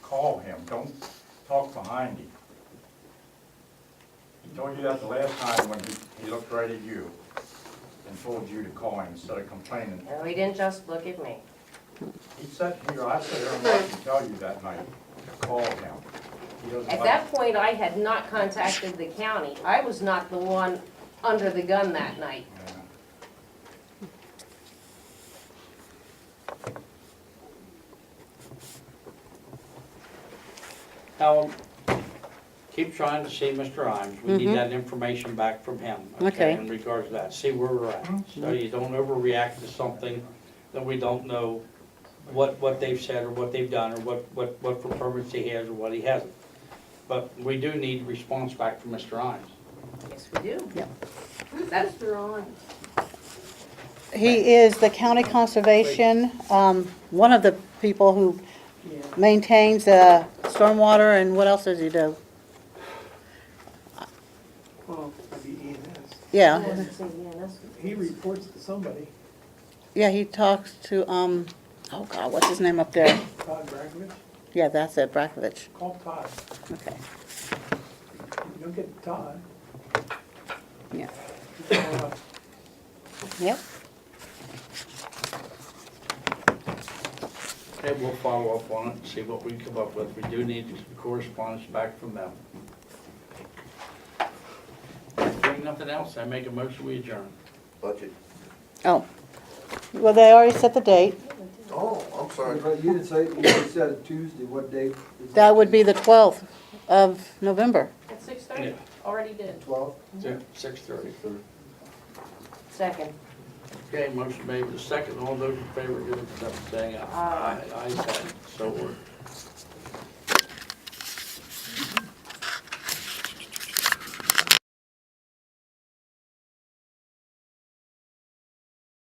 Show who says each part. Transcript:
Speaker 1: and don't talk behind him. He told you that the last time when he, he looked right at you and told you to call him instead of complaining.
Speaker 2: No, he didn't just look at me.
Speaker 1: He sat here, I sat here and watched him tell you that night to call him. He doesn't
Speaker 2: At
Speaker 1: like-
Speaker 2: that point, I had not contacted the county. I was not the one under the gun that night.
Speaker 1: Yeah.
Speaker 3: Helen, keep trying to see Mr. Imes. We need that information back from him.
Speaker 4: Okay.
Speaker 3: In regards to that, see where we're at. So you don't overreact to something that we don't know what, what they've said or what they've done or what, what, what for permits he has or what he hasn't. But we do need response back from Mr. Imes.
Speaker 2: Yes, we do.
Speaker 4: Yep.
Speaker 2: That's wrong.
Speaker 4: He is the county conservation, um, one of the people who maintains, uh, stormwater and what else does he do?
Speaker 5: Well, maybe Ian has.
Speaker 4: Yeah,
Speaker 5: He reports to somebody,
Speaker 4: yeah, he talks to, um, oh God, what's his name up there?
Speaker 5: Todd Brakovich,
Speaker 4: Yeah, that's it, Brakovich,
Speaker 5: call Todd.
Speaker 4: okay,
Speaker 5: If you don't get Todd,
Speaker 4: yeah,
Speaker 5: you call, uh,
Speaker 4: yep.
Speaker 3: Okay, we'll follow up on it and see what we come up with. We do need correspondence back from them. If there's nothing else, I make a motion, we adjourn.
Speaker 6: Budget.
Speaker 4: Oh, well, they already set the date,
Speaker 6: Oh, I'm sorry.
Speaker 7: But you didn't say, you just said it Tuesday, what day? is it?
Speaker 4: that would be the twelfth of November.
Speaker 2: At six thirty, already did.
Speaker 7: Twelve?
Speaker 3: Six thirty.
Speaker 2: Second.
Speaker 3: Okay, motion made with a second. All those in favor, give it a saying aye.
Speaker 2: Aye.
Speaker 3: Ayes have it. So ordered.